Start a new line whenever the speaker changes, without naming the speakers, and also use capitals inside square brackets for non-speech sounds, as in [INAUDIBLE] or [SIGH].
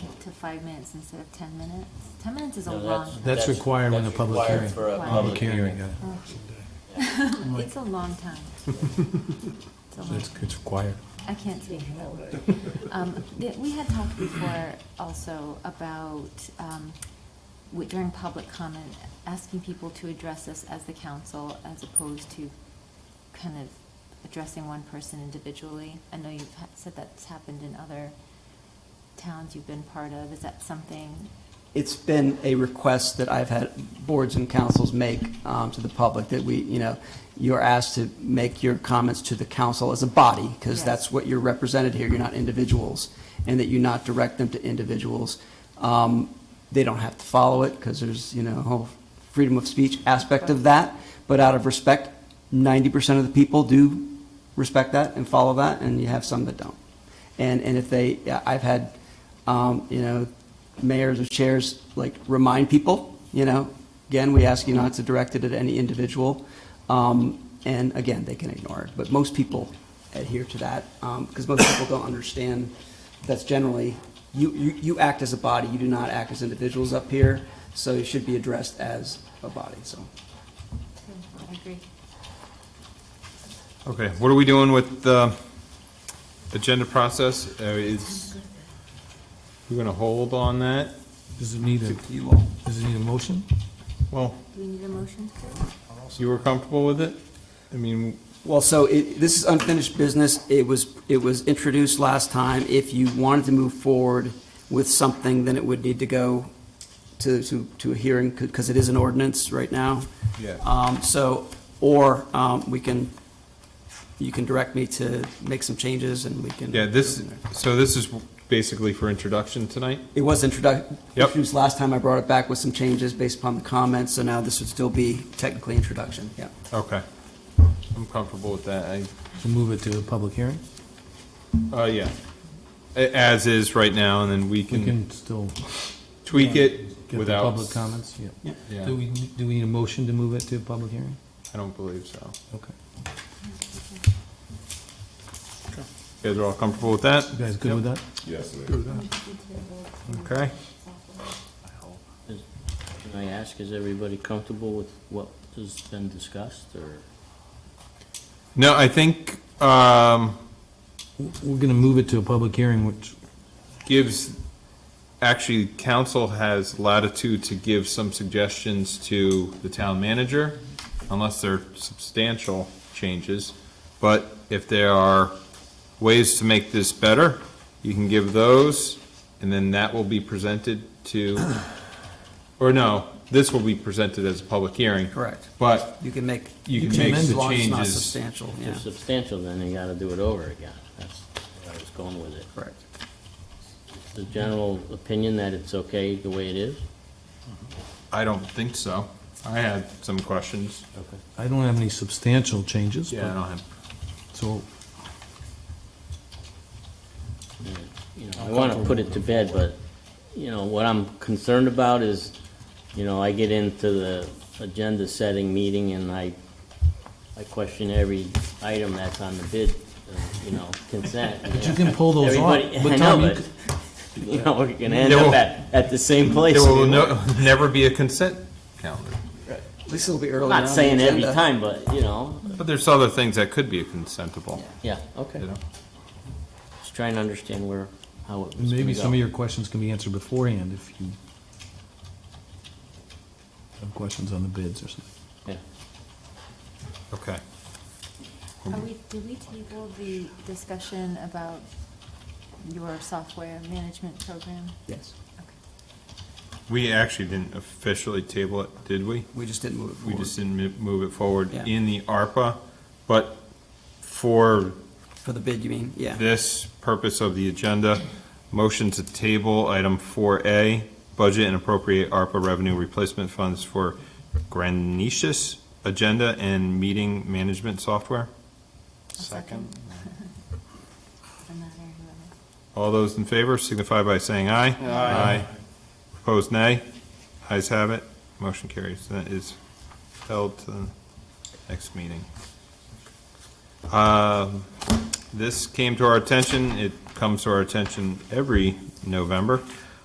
to five minutes instead of ten minutes? Ten minutes is a
No,
long
that's-
time.
That's required when the
that's
public
required
hearing.
for a
Wow.
public hearing.
yeah.
Oh. [LAUGHS] It's a long time. It's a
So
long,
It's, it's required.
I can't speak for that word. Um, th- We had talked before also about, um, wi- during public comment, asking people to address us as the council as opposed to kind of addressing one person individually. I know you've ha- said that's happened in other towns you've been part of. Is that something
It's been a request that I've had boards and councils make um, to the public, that we, you know, you're asked to make your comments to the council as a body, because
Yes.
that's what you're represented here, you're not individuals, and that you not direct them to individuals. Um, They don't have to follow it, because there's, you know, a whole freedom of speech aspect of that, but out of respect, 90% of the people do respect that and follow that, and you have some that don't. And, and if they, yeah, I've had, um, you know, mayors or chairs, like, remind people, you know, again, we ask you not to direct it at any individual. Um, and again, they can ignore it, but most people adhere to that, um, because most people don't understand that's generally, you, you, you act as a body, you do not act as individuals up here, so it should be addressed as a body, so.
I agree.
Okay, what are we doing with the agenda process? Uh, Is, we're gonna hold on that?
Does it need a,
You all.
does it need a motion?
Well,
Do we need a motion to do it?
you were comfortable with it? I mean,
Well, so it, this is unfinished business. It was, it was introduced last time. If you wanted to move forward with something, then it would need to go to, to, to a hearing, because it is an ordinance right now.
Yeah.
Um, so, or, um, we can, you can direct me to make some changes and we can.
yeah, this, so this is basically for introduction tonight?
It was introduced,
Yep.
introduced last time. I brought it back with some changes based upon the comments, so now this would still be technically introduction, yeah.
Okay. I'm comfortable with that. I,
To move it to a public hearing?
uh, yeah. A- As is right now, and then we
We
can
can still
tweak it
get the
without.
public comments, yeah.
Yeah,
Do we, do we need a motion to move it to a public hearing?
I don't believe so.
Okay.
You guys are all comfortable with that?
You guys good with that?
Okay.
Can I ask, is everybody comfortable with what has been discussed, or?
No, I think, um,
W- We're gonna move it to a public hearing, which,
gives, actually, council has latitude to give some suggestions to the town manager, unless they're substantial changes. But if there are ways to make this better, you can give those, and then that will be presented to, or no, this will be presented as a public hearing.
Correct.
But
You can make.
You can
make
as
the
long as it's not
changes.
Substantial,
If
yeah,
it's substantial, then you gotta do it over again. That's where I was going with it.
correct.
The general opinion that it's okay the way it is?
I don't think so. I had some questions.
Okay.
I don't have any substantial changes.
Yeah, I don't have,
but- So,
You know, I wanna put it to bed, but, you know, what I'm concerned about is, you know, I get into the agenda-setting meeting and I, I question every item that's on the bid, uh, you know, consent.
but you can pull those off.
Everybody-
But
I
Tom,
know,
you
but, [LAUGHS] you know, we're gonna end
There
up
will-
at, at the same place.
there will
We were.
no, [LAUGHS] never be a consent calendar.
At least it'll be early.
Not
on the
saying every
agenda.
time, but, you know,
But there's other things that could be consentable,
yeah, okay.
you know?
Just trying to understand where, how it was
And Maybe
gonna
some
go.
of your questions can be answered beforehand if you have questions on the bids or something.
Yeah.
Okay.
Are we, did we table the discussion about your software management program?
Yes,
Okay.
We actually didn't officially table it, did we?
we just didn't move it
We
forward.
just didn't mo- move it forward
Yeah.
in the ARPA, but for
For the bid, you mean, yeah.
this purpose of the agenda, motion to table item four A, budget and appropriate ARPA revenue replacement funds for Granicious agenda and meeting management software.
A second. [LAUGHS] I'm not very well.
All those in favor signify by saying aye. Aye. Opposed, nay. Ayes have it. Motion carries. That is held to the next meeting. Um, This came to our attention. It comes to our attention every November.